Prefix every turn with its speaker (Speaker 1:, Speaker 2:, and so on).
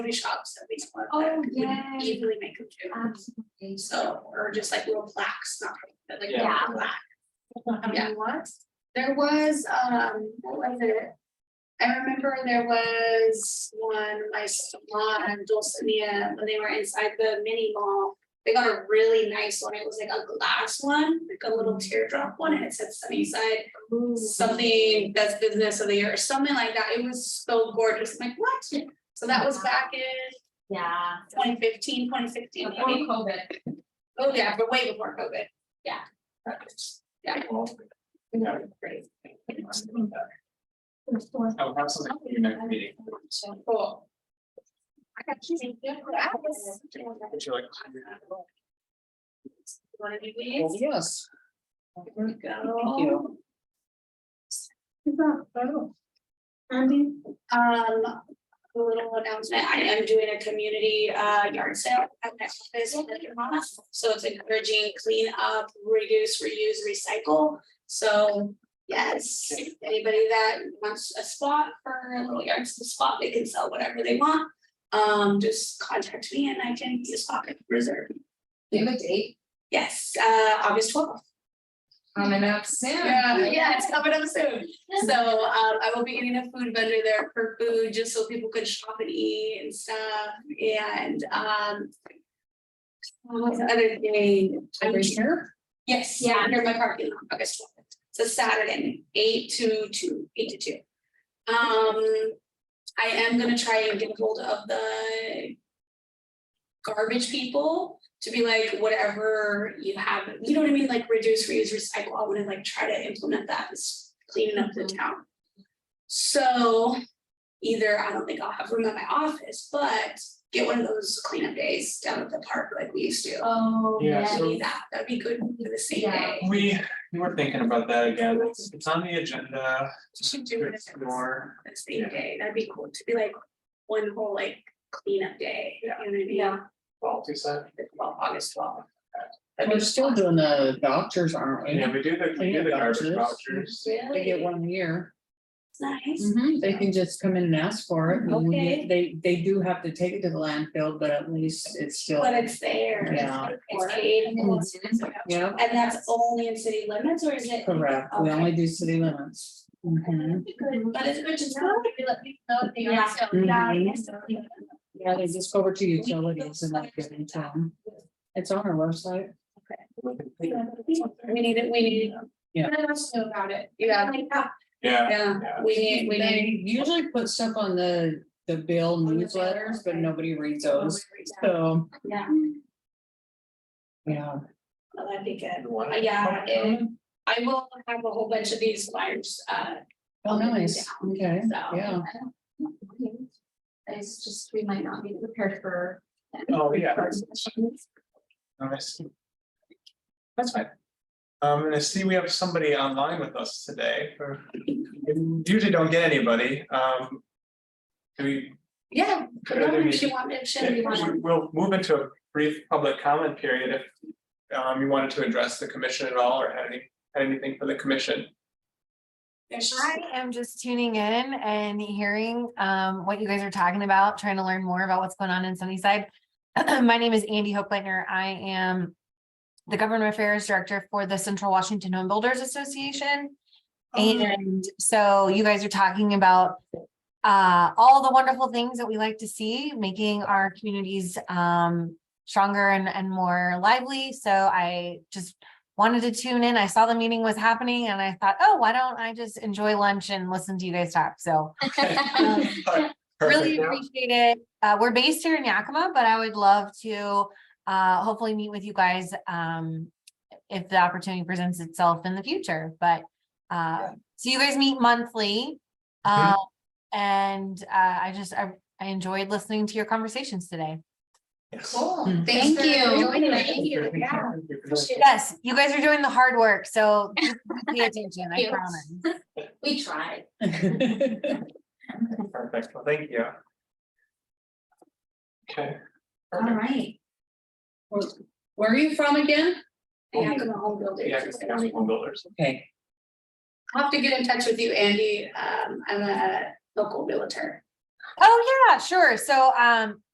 Speaker 1: many shops that we still have
Speaker 2: Oh,
Speaker 1: that we
Speaker 2: yeah.
Speaker 1: easily make them do.
Speaker 2: Absolutely.
Speaker 1: So, or just like little plaques, not like, but like
Speaker 3: Yeah.
Speaker 1: little plaque.
Speaker 2: How
Speaker 1: Yeah.
Speaker 2: many was?
Speaker 1: There was, um, what was it? I remember there was one, my salon and Dulcinea, when they were inside the mini mall. They got a really nice one. It was like a glass one, like a little teardrop one, and it said Sunnyside. Something that's business of the year, or something like that. It was so gorgeous. I'm like, what? So that was back in
Speaker 2: Yeah.
Speaker 1: 2015, 2016,
Speaker 2: Before
Speaker 1: maybe.
Speaker 2: COVID.
Speaker 1: Oh, yeah, but way before COVID.
Speaker 2: Yeah.
Speaker 1: Yeah.
Speaker 3: Yeah.
Speaker 1: Great.
Speaker 3: I will have something for you next meeting.
Speaker 1: So cool.
Speaker 2: I got you.
Speaker 1: That was-
Speaker 3: Would you like?
Speaker 1: Wanna do
Speaker 4: Well,
Speaker 1: these?
Speaker 4: Yes.
Speaker 1: There we go.
Speaker 4: Thank you.
Speaker 1: Andy? Um, a little announcement, I am doing a community uh yard sale at my office in Livermore. So it's encouraging clean up, reduce, reuse, recycle. So, yes, anybody that wants a spot for a little yard sale spot, they can sell whatever they want. Um, just contact me and I can use pocket reserve.
Speaker 2: Do you have a date
Speaker 1: Yes, uh, August twelfth.
Speaker 2: coming up soon?
Speaker 1: Yeah, yeah, it's coming up soon. So um I will be getting a food vendor there for food, just so people could shop and eat and stuff and um. oh, What was the other thing?
Speaker 4: Every year?
Speaker 1: Yes, yeah,
Speaker 2: Yeah.
Speaker 1: near my parking lot, August twelfth. It's a Saturday, eight to two, eight to two. Um, I am gonna try and get hold of the. Garbage people to be like, whatever you have, you know what I mean, like reduce, reuse, recycle, I wanna like try to implement that as cleaning up the town. So either, I don't think I'll have room at my office, but get one of those cleanup days down at the park like we used to.
Speaker 2: Oh,
Speaker 3: Yeah,
Speaker 2: yeah.
Speaker 3: so-
Speaker 1: Maybe that, that'd be good for the same
Speaker 2: Yeah.
Speaker 1: day.
Speaker 3: We, we were thinking about that again. It's it's on the agenda.
Speaker 1: You should do it
Speaker 3: It's
Speaker 1: as
Speaker 3: more,
Speaker 1: the same day, that'd be cool, to be like one whole like cleanup day, you know what I mean?
Speaker 2: Yeah.
Speaker 3: well, two set.
Speaker 1: The 12th, August twelfth.
Speaker 4: We're still doing the vouchers, aren't we?
Speaker 3: Yeah, we do the, we do the garbage
Speaker 4: Yeah.
Speaker 3: vouchers.
Speaker 4: They get one a year.
Speaker 1: Nice,
Speaker 4: Mhm, They can just come in and ask for it. and we-
Speaker 1: Mm-hmm. Okay.
Speaker 4: They, they do have to take it to the landfill, but at least it's still,
Speaker 1: but it's there.
Speaker 4: Yeah.
Speaker 1: It's paid.
Speaker 2: Mhm.
Speaker 4: yeah,
Speaker 1: And that's only in city limits, or is it?
Speaker 4: correct. We only do city limits.
Speaker 3: Mm-hmm.
Speaker 4: Mhm.
Speaker 1: But it's good to know.
Speaker 2: Maybe let me know if they
Speaker 1: Yeah.
Speaker 2: are still.
Speaker 3: Mm-hmm.
Speaker 4: Yeah,
Speaker 2: Yeah.
Speaker 4: Yeah, they just go over to utilities and like give them to them. It's on our website.
Speaker 1: We need it, we need,
Speaker 2: Let us know about it.
Speaker 1: yeah,
Speaker 3: Yeah,
Speaker 1: yeah,
Speaker 3: yeah.
Speaker 1: we need, we
Speaker 4: They
Speaker 1: need.
Speaker 4: usually put stuff on the, the bill newsletters, but nobody reads
Speaker 1: Oh,
Speaker 4: those. So,
Speaker 1: Yeah,
Speaker 4: yeah.
Speaker 1: well, that'd be good.
Speaker 3: You want
Speaker 1: Uh,
Speaker 3: it?
Speaker 1: Yeah, and I will have a whole bunch of these flyers, uh,
Speaker 4: Oh, nice. Okay,
Speaker 1: so.
Speaker 4: yeah.
Speaker 2: It's just, we might not be prepared for.
Speaker 3: Oh, yeah.
Speaker 2: Questions?
Speaker 3: Nice. That's fine. Um, and I see we have somebody online with us today. or- we Usually don't get anybody, um. Do we?
Speaker 1: Yeah,
Speaker 3: could we-
Speaker 1: if you want, if she wants.
Speaker 3: we- We'll move into a brief public comment period if um you wanted to address the commission at all or had any, had anything for the commission.
Speaker 5: I am just tuning in and hearing um what you guys are talking about, trying to learn more about what's going on in Sunnyside. My name is Andy Hochleitner. I am the Government Affairs Director for the Central Washington Home Builders Association.
Speaker 3: Oh.
Speaker 5: And so you guys are talking about uh all the wonderful things that we like to see, making our communities um stronger and and more lively. So I just wanted to tune in. I saw the meeting was happening and I thought, oh, why don't I just enjoy lunch and listen to you guys talk? So um, really
Speaker 3: Perfect. Yeah.
Speaker 5: appreciate it. Uh, we're based here in Yakima, but I would love to uh, hopefully meet with you guys um, if the opportunity presents itself in the future. But uh, so you guys meet monthly. Uh, and uh, I just, I, I enjoyed listening to your conversations today.
Speaker 3: Yes.
Speaker 2: Cool.
Speaker 4: Mm.
Speaker 2: Thanks
Speaker 1: Hmm. Thank
Speaker 2: for
Speaker 1: you.
Speaker 2: joining us.
Speaker 1: Thank you.
Speaker 3: Thank you for this.
Speaker 5: Yes, you guys are doing the hard work. So just pay attention, I
Speaker 2: Yes.
Speaker 5: promise.
Speaker 2: We tried.
Speaker 3: Perfect, well, thank you. Okay.
Speaker 2: All
Speaker 3: perfect.
Speaker 2: right.
Speaker 4: Where are you from again?
Speaker 1: Yeah, the home builders.
Speaker 3: Yeah, because they're home builders.
Speaker 4: Okay,
Speaker 1: I'll have to get in touch with you, Andy. Um, I'm a local realtor.
Speaker 5: Oh, yeah, sure. So um,